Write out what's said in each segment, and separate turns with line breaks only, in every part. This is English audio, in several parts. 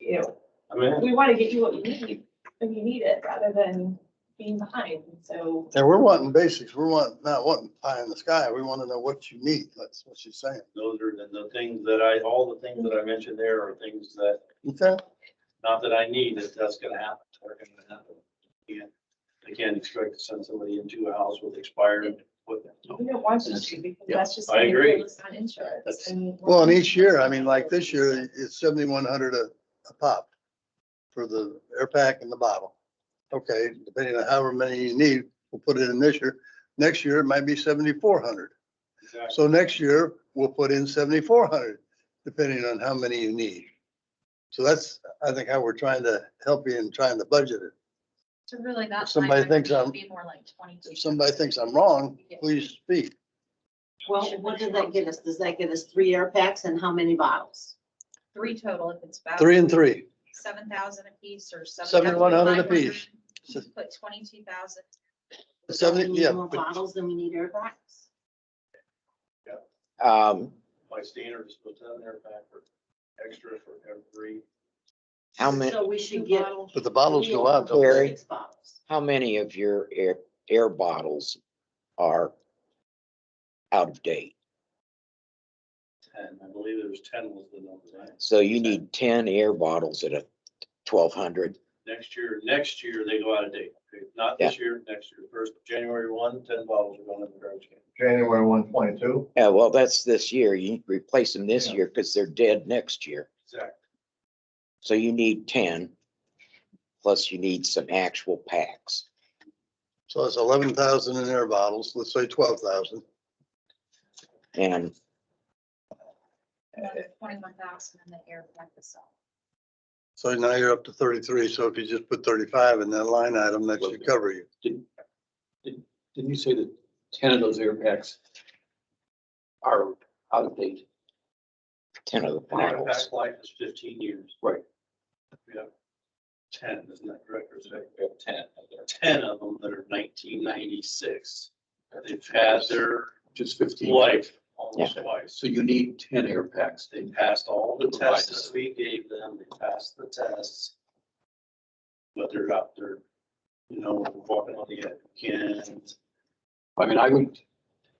you know,
I mean,
we want to get you what you need when you need it rather than being behind. So
And we're wanting basics. We're wanting, not wanting pie in the sky. We want to know what you need. That's what she's saying.
those are the, the things that I, all the things that I mentioned there are things that,
Okay?
not that I need, that that's gonna happen, are gonna happen. Again, I can't expect to send somebody into a house with expired equipment.
we don't want you to because
Yeah,
that's just.
I
gonna
agree.
hold us On insurance.
That's-
and we're-
Well, and each year, I mean, like this year, it's seventy-one hundred a, a pop for the air pack and the bottle. Okay, depending on however many you need, we'll put it in this year. Next year, it might be seventy-four hundred.
Exactly.
So next year, we'll put in seventy-four hundred, depending on how many you need. So that's, I think, how we're trying to help you in trying to budget it.
So really that.
If somebody
line item
thinks I'm-
should Be more like twenty-two.
If somebody thinks I'm wrong, please speak.
Well, what does that get us? Does that get us three air packs and how many bottles?
Three total if it's. about
Three and three.
Seven thousand apiece or seven.
Seven and 100 apiece.
Put twenty-two thousand.
Do
Seventy,
we need
yeah,
More
but
bottles than we need air packs?
Um,
My standard is put that in there back for extra for every,
how many,
So we should get.
but the bottles
three
go
or
out, don't
Very.
they?
Six bottles.
how many of your air, air bottles are out of date?
ten, I believe there was ten was the number, right?
So you need ten air bottles at a twelve hundred.
Next year, next year, they go out of date, not this year, next year, first, January one, ten bottles are going in the garbage can.
January one twenty-two.
Yeah, Uh, well, that's this year. You replace them this
Yeah.
year because they're dead next year.
Exactly.
So you need ten, plus you need some actual packs.
So it's eleven thousand in air bottles, let's say twelve thousand.
And
Twenty-one thousand in the air pack itself.
So now you're up to thirty-three, so if you just put thirty-five in that line item, that should cover you.
Didn't you say that ten of those air packs are out of date?
ten of the
An air
bottles.
pack life is fifteen years.
Right.
Yeah. Ten, isn't that correct, or is that-
We have ten out there.
ten of them that are nineteen ninety-six. They've had their
Just fifteen.
life almost twice.
So you need ten air packs.
They passed all the tests we gave them, they passed the tests. But they're out there, you know, walking on the edge, can't,
I mean, I would,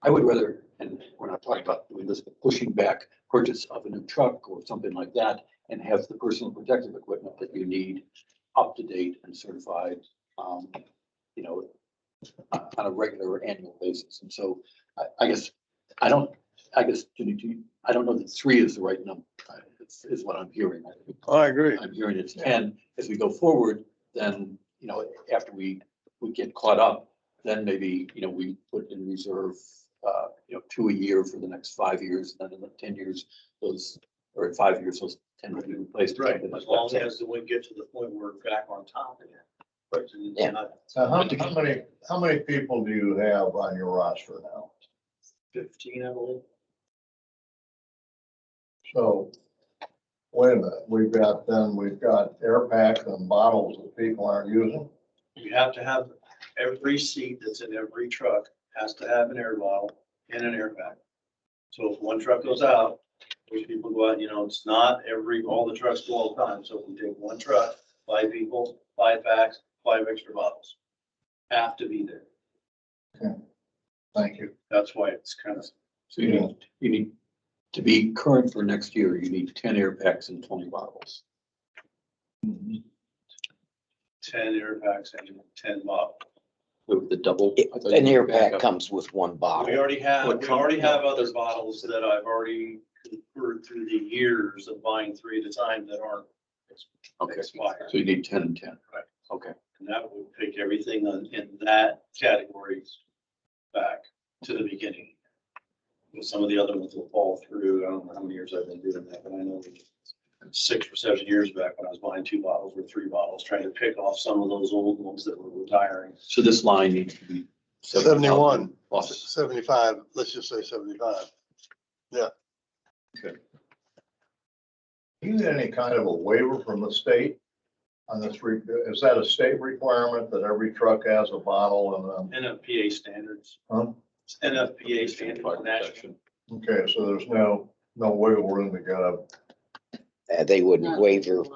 I would rather, and we're not talking about doing this, but pushing back purchase of a new truck or something like that and have the personal protective equipment that you need up to date and certified, um, you know, on on a regular annual basis. And so I, I guess, I don't, I guess, do you- do you- I don't know that three is the right number, uh, is, is what I'm hearing. I think
I agree.
I'm hearing it's ten. As we go forward, then, you know, after we, we get caught up, then maybe, you know, we put in reserve, uh, you know, two a year for the next five years, and then in the ten years, those, or in five years, those ten will be replaced. or
right,
something like
as long
that.
as we get to the point where we're back on top again. But it's
Yeah.
not
So Uh, how, how many, how many people do you have on your roster now?
fifteen, I believe.
So, wait a minute, we've got, then we've got air packs and bottles that people aren't using.
You have to have, every seat that's in every truck has to have an air bottle and an air pack. So if one truck goes out, those people go out, you know, it's not every, all the trucks go all the time. So if we take one truck, five people, five packs, five extra bottles. Have to be there.
Thank you.
That's why it's kind of,
So you need, you need, to be current for next year, you need ten air packs and twenty bottles.
ten air packs and ten bottles.
With the double.
It-
I thought you
An air
could back
pack
up.
comes with one
We
bottle.
already have,
What
we already
company?
have other bottles that I've already converted through the years of buying three at a time that aren't
Okay,
expired.
so you need ten and ten.
Right.
Okay.
And that would take everything on, in that categories back to the beginning. And Some of the other ones will fall through. I don't know how many years I've been doing that, but I know six or seven years back when I was buying two bottles or three bottles, trying to pick off some of those old ones that were retiring.
So this line needs to be. 70,000
71.
Faucets.
Seventy-five, let's just say seventy-five.
Do you need any kind of a waiver from the state on this, re- is that a state requirement that every truck has a bottle
NFPA standards,
and,
It's NFPA standards, national.
um, okay, so there's no, no wiggle room to get a
Uh, They would
Not-
waiver